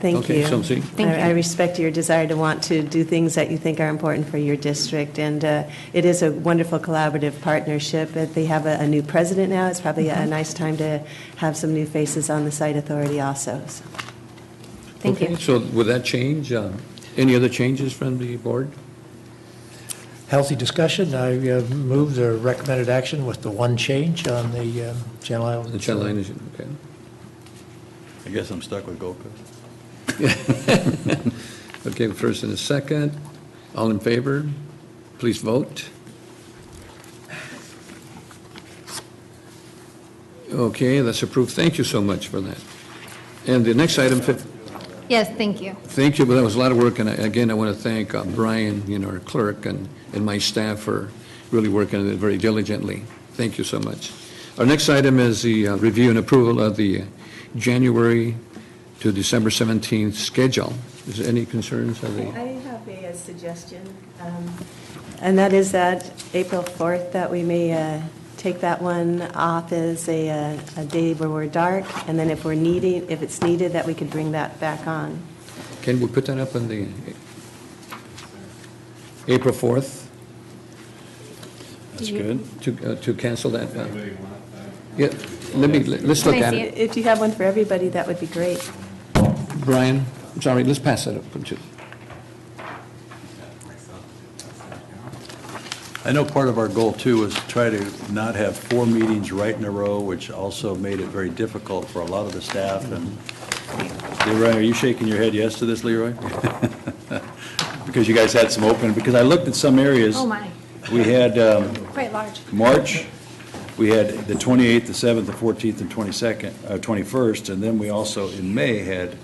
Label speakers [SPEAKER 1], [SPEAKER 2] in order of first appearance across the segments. [SPEAKER 1] Thank
[SPEAKER 2] Okay,
[SPEAKER 1] you.
[SPEAKER 2] so, see?
[SPEAKER 3] Thank
[SPEAKER 1] I I respect your desire to want to do things that you think are important for your district, and uh, it is a wonderful collaborative partnership. If They have a a new president now, it's probably a nice time to have some new faces on the site authority also. So,
[SPEAKER 3] Thank
[SPEAKER 2] Okay,
[SPEAKER 3] you.
[SPEAKER 2] So would that change? uh, Any other changes from the board?
[SPEAKER 4] Healthy discussion. I uh, move the recommended action with the one change on the um, Channel Islands.
[SPEAKER 2] The channel energy, okay.
[SPEAKER 5] I guess I'm stuck with Gold Coast.
[SPEAKER 2] Okay, first and a second. All in favor? Please vote. Okay, that's approved. Thank you so much for that. And the next item, fif-
[SPEAKER 3] Yes, thank you.
[SPEAKER 2] Thank you, but that was a lot of work, and I- again, I want to thank uh, Brian, you know, our clerk, and, and my staff for really working on it very diligently. Thank you so much. Our next item is the uh, review and approval of the January to December 17th schedule. Is there any concerns of the,
[SPEAKER 1] I have a suggestion, um, and that is that April 4th, that we may uh, take that one off as a day where we're dark, and then if we're needing, if it's needed, that we could bring that back on.
[SPEAKER 2] can we put that up on the April 4th
[SPEAKER 5] That's good.
[SPEAKER 2] to, uh, to cancel that? uh, Yeah, let me, let's look
[SPEAKER 3] Can I
[SPEAKER 2] at
[SPEAKER 3] see
[SPEAKER 2] it.
[SPEAKER 1] If you have one for everybody, that would be great.
[SPEAKER 2] Brian, I'm sorry, let's pass that up. to-
[SPEAKER 5] I know part of our goal, too, was to try to not have four meetings right in a row, which also made it very difficult for a lot of the staff, and
[SPEAKER 3] Mm-hmm.
[SPEAKER 5] Leroy, are you shaking your head yes to this, Leroy? Because you guys had some open, because I looked at some areas.
[SPEAKER 3] Oh, my.
[SPEAKER 5] We had, um,
[SPEAKER 3] Quite large.
[SPEAKER 5] March, we had the 28th, the 7th, the 14th, and 22nd, uh, 21st, and then we also, in May, had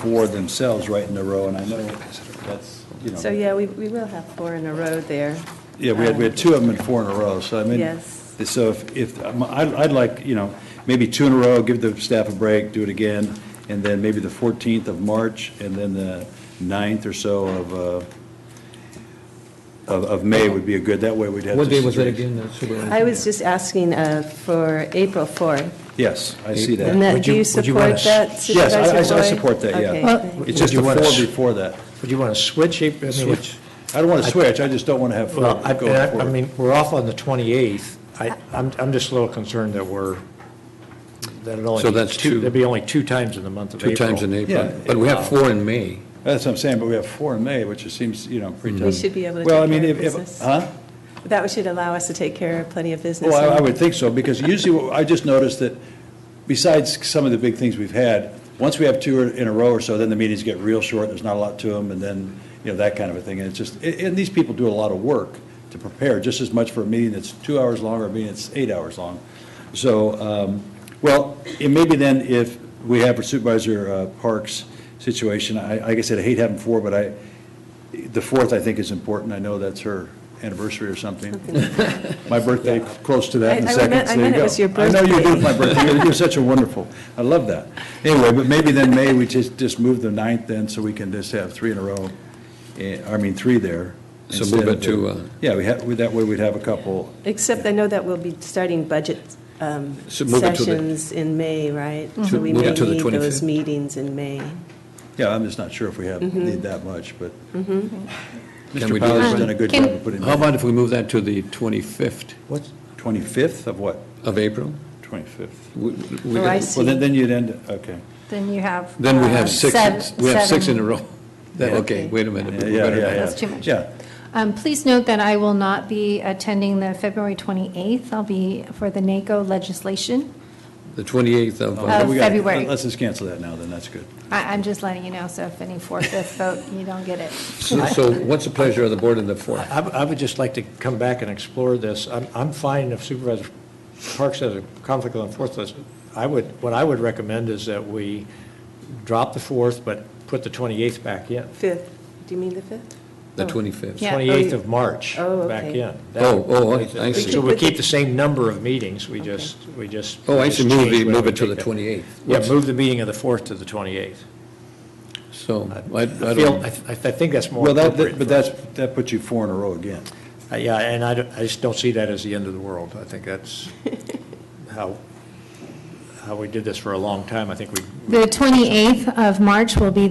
[SPEAKER 5] four themselves right in a row, and I know that's, you
[SPEAKER 1] So,
[SPEAKER 5] know,
[SPEAKER 1] yeah, we, we will have four in a row there.
[SPEAKER 5] yeah, we had, we had two of them in four in a row, so I mean.
[SPEAKER 1] Yes.
[SPEAKER 5] So if, if, um, I'd, I'd like, you know, maybe two in a row, give the staff a break, do it again, and then maybe the 14th of March, and then the 9th or so of, uh, of, of May would be a good, that way we'd have.
[SPEAKER 2] What day
[SPEAKER 5] just
[SPEAKER 2] was that
[SPEAKER 5] three.
[SPEAKER 2] again? uh,
[SPEAKER 1] Um,
[SPEAKER 2] Superintendent?
[SPEAKER 1] I was just asking uh, for April 4th.
[SPEAKER 5] Yes, I see that.
[SPEAKER 1] And that,
[SPEAKER 4] Would
[SPEAKER 1] do you
[SPEAKER 4] you- would you wanna
[SPEAKER 1] support that,
[SPEAKER 4] s-
[SPEAKER 5] Yes, I- I- I
[SPEAKER 1] Supervisor Boyd?
[SPEAKER 5] support that, yeah.
[SPEAKER 1] Okay,
[SPEAKER 5] Well-
[SPEAKER 1] thank you.
[SPEAKER 5] It's just the
[SPEAKER 4] Would you want us-
[SPEAKER 5] four before that.
[SPEAKER 4] Would you want to switch? April? I mean,
[SPEAKER 5] I don't want to switch, I just don't want to have four
[SPEAKER 4] Well, I-
[SPEAKER 5] going
[SPEAKER 4] I I
[SPEAKER 5] forward.
[SPEAKER 4] mean, we're off on the 28th. I, I'm, I'm just a little concerned that we're, that it only.
[SPEAKER 2] So that's two-
[SPEAKER 4] There'd be only two times in the month of
[SPEAKER 2] Two
[SPEAKER 4] April.
[SPEAKER 2] times in April,
[SPEAKER 5] Yeah.
[SPEAKER 2] but we have four in May.
[SPEAKER 5] That's what I'm saying, but we have four in May, which it seems, you know, pretty tough.
[SPEAKER 1] We should be able to
[SPEAKER 5] Well, I
[SPEAKER 1] take
[SPEAKER 5] mean,
[SPEAKER 1] care of
[SPEAKER 5] if- if-
[SPEAKER 1] business.
[SPEAKER 5] Huh?
[SPEAKER 1] That should allow us to take care of plenty of business.
[SPEAKER 5] Well, I I
[SPEAKER 1] and-
[SPEAKER 5] would think so, because usually, what- I just noticed that besides some of the big things we've had, once we have two in a row or so, then the meetings get real short, there's not a lot to them, and then, you know, that kind of a thing. And it's just, a- and these people do a lot of work to prepare, just as much for a meeting that's two hours long or a meeting that's eight hours long. So, um, well, it maybe then if we have Supervisor uh, Parks' situation, I, like I said, I hate having four, but I, the fourth, I think, is important. I know that's her anniversary or something. My birthday, close to that in
[SPEAKER 1] I- I
[SPEAKER 5] seconds.
[SPEAKER 1] meant- I
[SPEAKER 5] There you
[SPEAKER 1] meant it
[SPEAKER 5] go.
[SPEAKER 1] was your
[SPEAKER 5] I know you
[SPEAKER 1] birthday.
[SPEAKER 5] did my birthday. You're- You're such a wonderful, I love that. Anyway, but maybe then May, we just, just move the ninth then, so we can just have three in a row. eh, I mean, three there.
[SPEAKER 2] So
[SPEAKER 5] instead
[SPEAKER 2] move it
[SPEAKER 5] of-
[SPEAKER 2] to, uh,
[SPEAKER 5] Yeah, we have, that way we'd have a couple.
[SPEAKER 1] Except I know that we'll be starting budget um,
[SPEAKER 2] So move it to the-
[SPEAKER 1] sessions in May, right?
[SPEAKER 5] Mm-hmm.
[SPEAKER 1] So
[SPEAKER 2] To-
[SPEAKER 1] we
[SPEAKER 2] move
[SPEAKER 1] may
[SPEAKER 2] it to the
[SPEAKER 1] need
[SPEAKER 2] 25th.
[SPEAKER 1] those meetings in May.
[SPEAKER 5] Yeah, I'm just not sure if we have,
[SPEAKER 1] Mm-hmm.
[SPEAKER 5] need that much, but.
[SPEAKER 2] Can we
[SPEAKER 5] Mr.
[SPEAKER 2] do
[SPEAKER 5] Powell's
[SPEAKER 2] that?
[SPEAKER 5] done a good
[SPEAKER 3] Can-
[SPEAKER 5] job of putting
[SPEAKER 2] How
[SPEAKER 5] that.
[SPEAKER 2] about if we move that to the 25th
[SPEAKER 4] What's,
[SPEAKER 5] 25th of what?
[SPEAKER 2] of April?
[SPEAKER 5] 25th.
[SPEAKER 2] We- we-
[SPEAKER 1] Oh, I
[SPEAKER 5] Well, then,
[SPEAKER 1] see.
[SPEAKER 5] then you'd end, okay.
[SPEAKER 3] Then you have.
[SPEAKER 2] Then we
[SPEAKER 3] uh,
[SPEAKER 2] have six,
[SPEAKER 3] sev-
[SPEAKER 2] we have six in
[SPEAKER 3] seven.
[SPEAKER 2] a row. That-
[SPEAKER 5] Yeah.
[SPEAKER 2] Okay, wait a minute.
[SPEAKER 5] Yeah,
[SPEAKER 2] we
[SPEAKER 5] yeah,
[SPEAKER 2] better-
[SPEAKER 5] yeah, yeah.
[SPEAKER 3] That's too much.
[SPEAKER 5] Yeah,
[SPEAKER 3] Um, Please note that I will not be attending the February 28th. I'll be for the NACO legislation.
[SPEAKER 2] The 28th of,
[SPEAKER 5] Okay,
[SPEAKER 2] uh,
[SPEAKER 3] Of-
[SPEAKER 5] we gotta-
[SPEAKER 3] February.
[SPEAKER 5] Let's just cancel that now, then, that's good.
[SPEAKER 3] I- I'm just letting you know, so if any four-fifth vote, you don't get it.
[SPEAKER 2] so so what's the pleasure of the board on the 4th?
[SPEAKER 4] I, I would just like to come back and explore this. I'm, I'm fine if Supervisor Parks has a conflict on the fourth list. I would, what I would recommend is that we drop the fourth, but put the twenty-eighth back in.
[SPEAKER 1] 5th, do you mean the 5th?
[SPEAKER 2] The 25th?
[SPEAKER 3] Yeah.
[SPEAKER 4] Twenty-eighth of March,
[SPEAKER 1] Oh,
[SPEAKER 4] back
[SPEAKER 1] okay.
[SPEAKER 4] in.
[SPEAKER 2] Oh, oh, I- I see.
[SPEAKER 4] So we keep the same number of meetings, we just, we just.
[SPEAKER 2] Oh, I
[SPEAKER 4] just
[SPEAKER 2] should move
[SPEAKER 4] change
[SPEAKER 2] the,
[SPEAKER 4] whether
[SPEAKER 2] move
[SPEAKER 4] we
[SPEAKER 2] it to
[SPEAKER 4] take
[SPEAKER 2] the
[SPEAKER 4] that.
[SPEAKER 2] 28th.
[SPEAKER 4] Yeah,
[SPEAKER 2] What's-
[SPEAKER 4] move the meeting of the fourth to the twenty-eighth.
[SPEAKER 2] So I I
[SPEAKER 4] I feel,
[SPEAKER 2] don't,
[SPEAKER 4] I, th- I think that's more
[SPEAKER 5] Well, that, that-
[SPEAKER 4] appropriate.
[SPEAKER 5] but that's, that puts you four in a row again.
[SPEAKER 4] Uh, Yeah, and I, don't- I just don't see that as the end of the world. I think that's how, how how we did this for a long time. I think we
[SPEAKER 3] The 28th of March will be